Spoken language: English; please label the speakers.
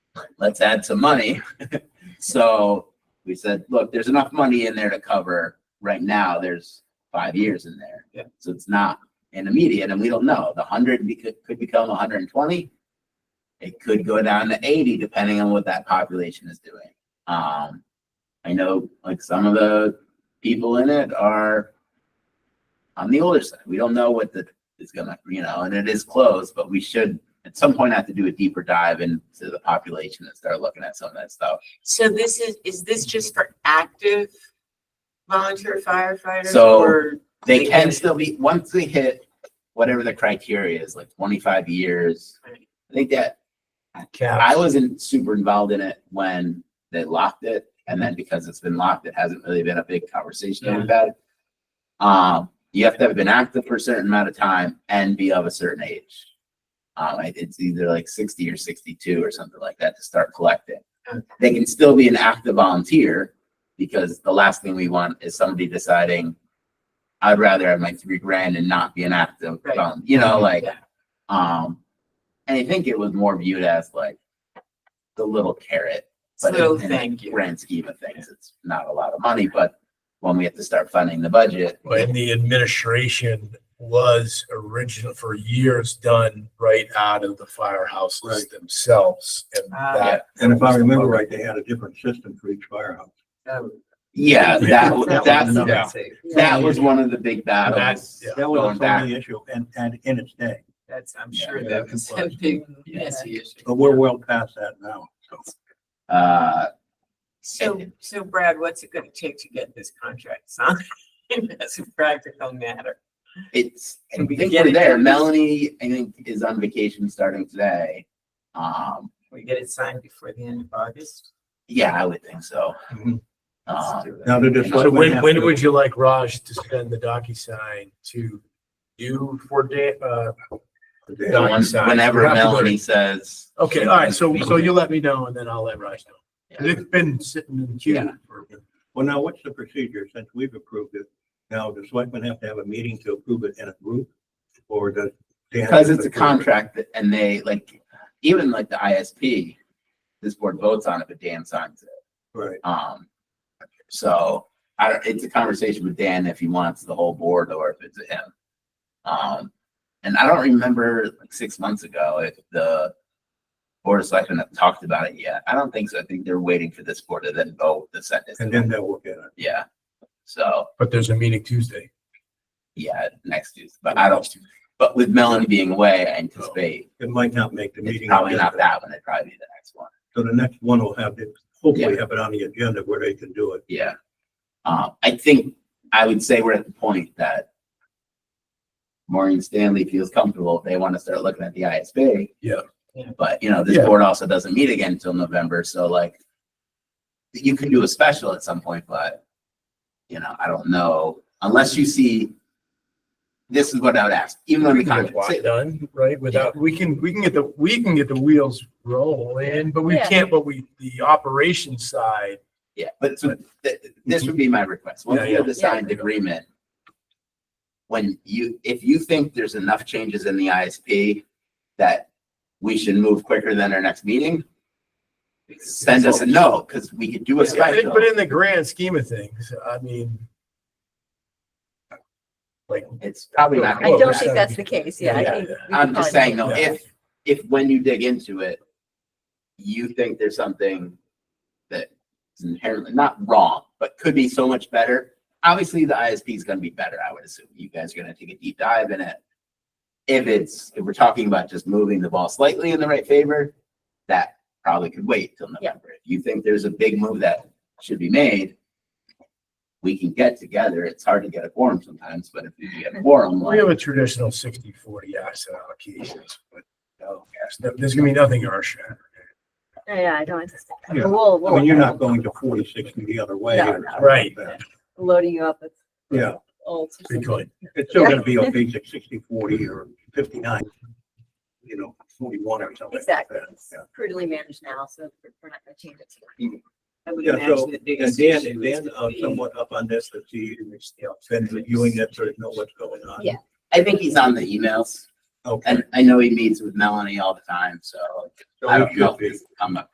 Speaker 1: let's add some money. So we said, look, there's enough money in there to cover right now. There's five years in there.
Speaker 2: Yeah.
Speaker 1: So it's not an immediate and we don't know. The hundred be- could, could become hundred and twenty. It could go down to eighty depending on what that population is doing. Um, I know like some of the people in it are on the older side. We don't know what the is gonna, you know, and it is closed, but we should at some point have to do a deeper dive into the population and start looking at some of that stuff.
Speaker 3: So this is, is this just for active volunteer firefighters
Speaker 1: So-
Speaker 3: or?
Speaker 1: They
Speaker 3: They
Speaker 1: can
Speaker 3: can-
Speaker 1: still be, once they hit whatever the criteria is, like twenty-five years, I think that, I wasn't super involved in it when they locked it. And then because it's been locked, it hasn't really been a big conversation
Speaker 3: Yeah.
Speaker 1: about it. Um, you have to have been active for a certain amount of time and be of a certain age. Um, I- it's either like sixty or sixty-two or something like that to start collecting.
Speaker 3: Okay.
Speaker 1: They can still be an active volunteer because the last thing we want is somebody deciding, I'd rather have my three grand and not be an active,
Speaker 3: Right.
Speaker 1: volun-" you know, like,
Speaker 3: Yeah.
Speaker 1: um, and I think it was more viewed as like the little carrot. but
Speaker 3: So
Speaker 1: in- in the
Speaker 3: thank you.
Speaker 1: Grand scheme of things, it's not a lot of money, but when we have to start funding the budget,
Speaker 4: And the administration was original for years done right out of the firehouses
Speaker 2: Right.
Speaker 4: themselves. And
Speaker 3: Ah.
Speaker 4: that,
Speaker 2: And if I remember right, they had a different system for each firehouse.
Speaker 1: yeah,
Speaker 2: Yeah.
Speaker 1: that,
Speaker 2: That
Speaker 1: that's,
Speaker 2: was another-
Speaker 1: that was one of the big battles.
Speaker 4: That's- yeah.
Speaker 2: That was
Speaker 1: Going
Speaker 2: a
Speaker 1: back,
Speaker 2: thorny issue and, and in its day,
Speaker 3: That's, I'm
Speaker 1: Yeah,
Speaker 3: sure
Speaker 4: yeah,
Speaker 3: that
Speaker 4: it
Speaker 3: was a
Speaker 4: was.
Speaker 3: big messy issue.
Speaker 2: but we're well past that now. So
Speaker 1: uh,
Speaker 3: So, so Brad, what's it gonna take to get this contract signed? That's a practical matter.
Speaker 1: It's, I
Speaker 3: Can we
Speaker 1: think
Speaker 3: get
Speaker 1: we're
Speaker 3: it
Speaker 1: there.
Speaker 3: done?
Speaker 1: Melanie, I think, is on vacation starting today. Um,
Speaker 3: We get it signed before the end of August?
Speaker 1: yeah, I would think so.
Speaker 4: Mhm.
Speaker 1: Uh,
Speaker 2: Now to
Speaker 4: so
Speaker 2: decide.
Speaker 4: when, when would you like Raj to send the DocuSign to you for da- uh,
Speaker 1: so when-
Speaker 4: DocuSign?
Speaker 1: whenever
Speaker 4: You have to go to-
Speaker 1: Melanie says.
Speaker 4: Okay, all right, so, so you let me know and then I'll let Raj know. 'Cause It's been sitting in
Speaker 1: Yeah.
Speaker 4: queue for.
Speaker 2: Well, now what's the procedure since we've approved it? Now, does selectmen have to have a meeting to approve it in a group? Or does? they have
Speaker 1: Because
Speaker 2: to
Speaker 1: it's a
Speaker 2: approve it?
Speaker 1: contract that- and they like, even like the ISP, this board votes on it, but Dan signs it.
Speaker 2: Right.
Speaker 1: Um, so I don't, it's a conversation with Dan if he wants the whole board or if it's him. Um, and I don't remember like six months ago if the board of selectmen have talked about it yet. I don't think so. I think they're waiting for this board to then vote the sentence.
Speaker 2: And then they'll look at it.
Speaker 1: Yeah. So,
Speaker 4: But there's a meeting Tuesday.
Speaker 1: yeah, next Tuesday, but I don't, but with Melanie being away, I anticipate
Speaker 2: It might not make the
Speaker 1: It's
Speaker 2: meeting.
Speaker 1: probably not
Speaker 2: agenda.
Speaker 1: that one, it'd probably be the next one,
Speaker 2: So the next one will have it, hopefully have it on the agenda where they can do it.
Speaker 1: yeah. Uh, I think, I would say we're at the point that Maureen Stanley feels comfortable, if they want to start looking at the ISB.
Speaker 4: Yeah.
Speaker 3: Yeah.
Speaker 1: But, you know, this
Speaker 4: Yeah.
Speaker 1: board also doesn't meet again until November, so like, you can do a special at some point, but, you know, I don't know, unless you see, this is what I would ask, even on the
Speaker 4: We can get
Speaker 1: contract, say-
Speaker 4: it Done, right, without, we can, we can get the, we can get the wheels rolling, but we
Speaker 5: Yeah.
Speaker 4: can't, but we, the operation side.
Speaker 1: Yeah, but so th- this would be my request. Once
Speaker 4: Yeah,
Speaker 1: we have
Speaker 4: yeah.
Speaker 1: the signed agreement, when you, if you think there's enough changes in the ISP that we should move quicker than our next meeting, send us a note, because we could do a special.
Speaker 4: But in the grand scheme of things, I mean. Like.
Speaker 1: It's probably not.
Speaker 5: I
Speaker 1: gonna
Speaker 5: don't
Speaker 1: work.
Speaker 5: think that's the case, yeah. I
Speaker 4: Yeah.
Speaker 5: think we can
Speaker 1: I'm just
Speaker 5: find
Speaker 1: saying
Speaker 5: it.
Speaker 1: though, if, if when you dig into it, you think there's something that is inherently not wrong, but could be so much better. Obviously, the ISP is gonna be better, I would assume. You guys are gonna take a deep dive in it. If it's, if we're talking about just moving the ball slightly in the right favor, that probably could wait till
Speaker 5: Yeah.
Speaker 1: November. If you think there's a big move that should be made, we can get together. It's hard to get a quorum sometimes, but if you get a quorum,
Speaker 4: We
Speaker 1: like,
Speaker 4: have a traditional 60-40 asset allocations, but no, yes, no, there's gonna be nothing earth shattering.
Speaker 5: Yeah, I don't, anticipate-
Speaker 2: Yeah.
Speaker 5: we'll,
Speaker 2: I mean, you're not
Speaker 5: we'll,
Speaker 2: going to forty, sixty the other way.
Speaker 5: No,
Speaker 2: or
Speaker 5: no.
Speaker 2: something like
Speaker 4: Right.
Speaker 2: that.
Speaker 5: loading you up with
Speaker 2: Yeah,
Speaker 5: old.
Speaker 4: We could.
Speaker 2: it's still gonna be a basic sixty, forty or fifty-nine, you know, forty-one or something. like that.
Speaker 5: Exactly. It's
Speaker 2: Yeah.
Speaker 5: Prudently managed now, so we're we're not gonna change it. tonight.
Speaker 3: I would
Speaker 2: Yeah, so,
Speaker 3: imagine the
Speaker 2: And
Speaker 3: biggest issue
Speaker 2: Dan,
Speaker 3: is
Speaker 2: Dan,
Speaker 3: gonna
Speaker 2: uh,
Speaker 3: be-
Speaker 2: somewhat up on this, that he, been reviewing this, or know what's going on.
Speaker 5: Yeah.
Speaker 1: I think he's on the emails.
Speaker 2: Okay.
Speaker 1: And I know he meets with Melanie all the time, so
Speaker 2: So
Speaker 1: I
Speaker 2: he
Speaker 1: don't know
Speaker 2: should
Speaker 1: if
Speaker 2: be.
Speaker 1: this will come up